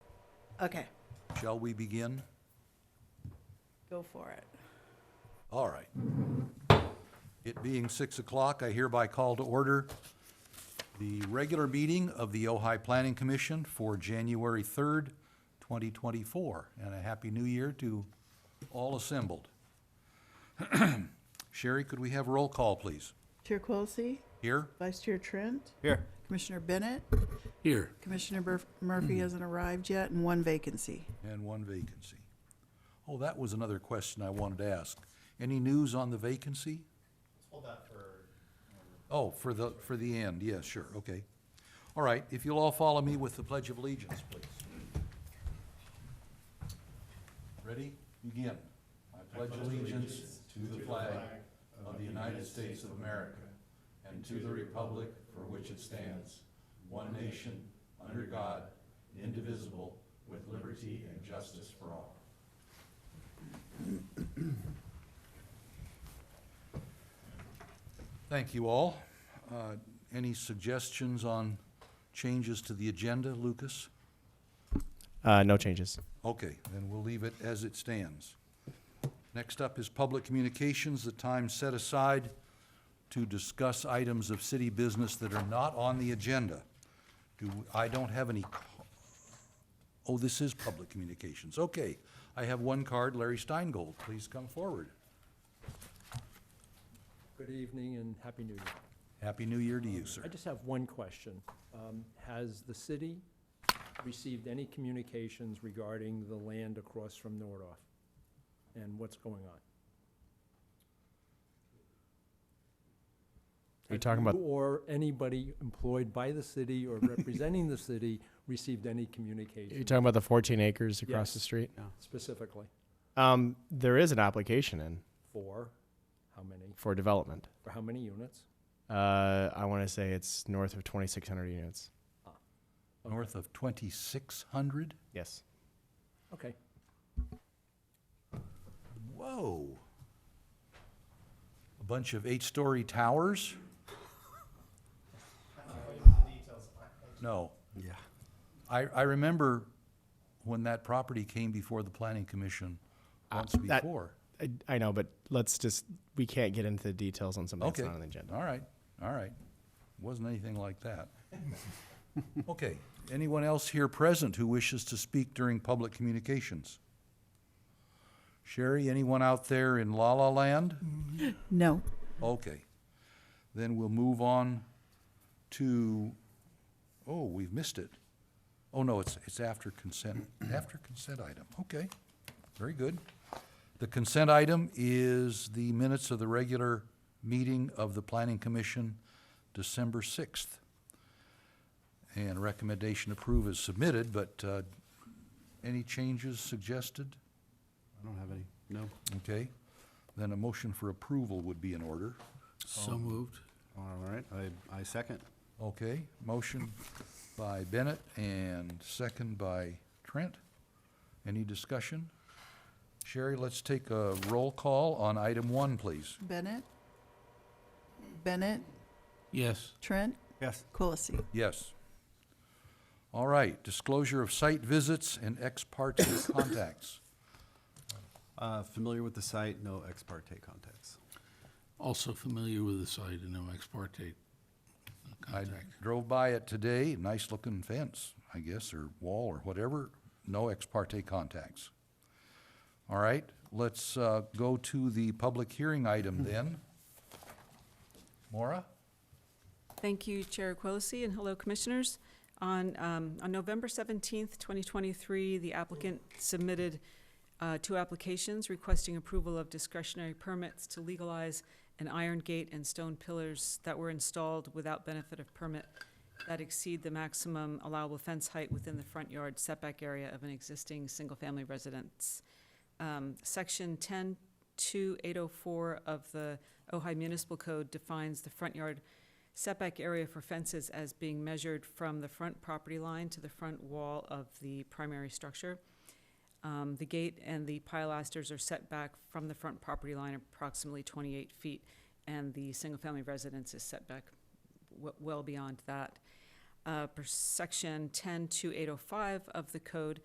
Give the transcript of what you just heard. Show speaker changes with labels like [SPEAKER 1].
[SPEAKER 1] Okay,
[SPEAKER 2] Shall we begin?
[SPEAKER 1] go for it.
[SPEAKER 2] All right. It being six o'clock, I hereby call to order the regular meeting of the Ojai Planning Commission for January third, twenty twenty-four, and a happy new year to all assembled. Sherry, could we have roll call, please?
[SPEAKER 1] Chair Quilisi,
[SPEAKER 2] Here?
[SPEAKER 1] Vice Chair Trent,
[SPEAKER 3] Here.
[SPEAKER 1] Commissioner Bennett,
[SPEAKER 3] Here.
[SPEAKER 1] Commissioner Murf- Murphy hasn't arrived yet, and one vacancy.
[SPEAKER 2] And one vacancy. Oh, that was another question I wanted to ask. Any news on the vacancy? Hold that for. Oh, for the, for the end, yes, sure, okay. All right, if you'll all follow me with the Pledge of Allegiance, please. Ready? Begin. I pledge allegiance to the flag of the United States of America and to the republic for which it stands, one nation, under God, indivisible, with liberty and justice for all. Thank you all. Uh, Any suggestions on changes to the agenda, Lucas?
[SPEAKER 4] Uh, no changes.
[SPEAKER 2] Okay, then we'll leave it as it stands. Next up is public communications, the time set aside to discuss items of city business that are not on the agenda. Do, I don't have any, ca- oh, this is public communications, okay. I have one card, Larry Steingold, please come forward.
[SPEAKER 5] Good evening and Happy New Year.
[SPEAKER 2] Happy New Year to you, sir.
[SPEAKER 5] I just have one question. Um, Has the city received any communications regarding the land across from Nordoff and what's going on?
[SPEAKER 4] Are you talking about-
[SPEAKER 5] Or anybody employed by the city or representing the city received any
[SPEAKER 4] You're
[SPEAKER 5] communication
[SPEAKER 4] talking about the 14 acres across the
[SPEAKER 5] Yes.
[SPEAKER 4] street.
[SPEAKER 5] specifically
[SPEAKER 4] Um, there is an application in
[SPEAKER 5] for how many,
[SPEAKER 4] for development.
[SPEAKER 5] for how many units?
[SPEAKER 4] Uh, I want to say it's north of 2,600 units.
[SPEAKER 2] North of twenty-six hundred?
[SPEAKER 4] Yes.
[SPEAKER 5] Okay,
[SPEAKER 2] Whoa. A bunch of eight-story towers? No. Yeah. I, I remember when that property came before the planning commission once
[SPEAKER 4] Ah, that-
[SPEAKER 2] before.
[SPEAKER 4] I, I know, but let's just we can't get into the details on something
[SPEAKER 2] Okay.
[SPEAKER 4] that's not on the agenda.
[SPEAKER 2] All right, all right. Wasn't anything like that. Okay, anyone else here present who wishes to speak during public communications? Sherry, anyone out there in La La Land?
[SPEAKER 1] No.
[SPEAKER 2] Okay. Then we'll move on to, oh, we've missed it. Oh, no, it's, it's after consent, after consent item. Okay, very good. The consent item is the minutes of the regular meeting of the Planning Commission, December 6th. And recommendation approve is submitted, but uh, any changes suggested?
[SPEAKER 3] I don't have any. No.
[SPEAKER 2] Okay, then a motion for approval would be in order.
[SPEAKER 3] So moved. All right, I, I second.
[SPEAKER 2] Okay, motion by Bennett and second by Trent. Any discussion? Sherry, let's take a roll call on item one, please.
[SPEAKER 1] Bennett? Bennett,
[SPEAKER 3] Yes.
[SPEAKER 1] Trent,
[SPEAKER 3] Yes.
[SPEAKER 1] Quilisi.
[SPEAKER 2] Yes. All right, disclosure of site visits and ex parte contacts.
[SPEAKER 3] Uh, familiar with the site, no ex parte contacts.
[SPEAKER 6] Also familiar with the site and no ex parte
[SPEAKER 2] I
[SPEAKER 6] contact.
[SPEAKER 2] drove by it today, nice-looking fence, I guess, or wall or whatever, no ex parte contacts. All right, let's uh, go to the public hearing item then. Maura?
[SPEAKER 7] Thank you, Chair Quilisi, and hello, Commissioners. On, um, on November seventeenth, twenty twenty-three, the applicant submitted, uh, two applications requesting approval of discretionary permits to legalize an iron gate and stone pillars that were installed without benefit of permit that exceed the maximum allowable fence height within the front yard setback area of an existing single-family residence. Um, Section 10-2804 of the Ojai Municipal Code defines the front yard setback area for fences as being measured from the front property line to the front wall of the primary structure. Um, The gate and the pilasters are set back from the front property line approximately 28 feet, and the single-family residence is set back w- well beyond that. Uh, Per section 10-2805 of the code,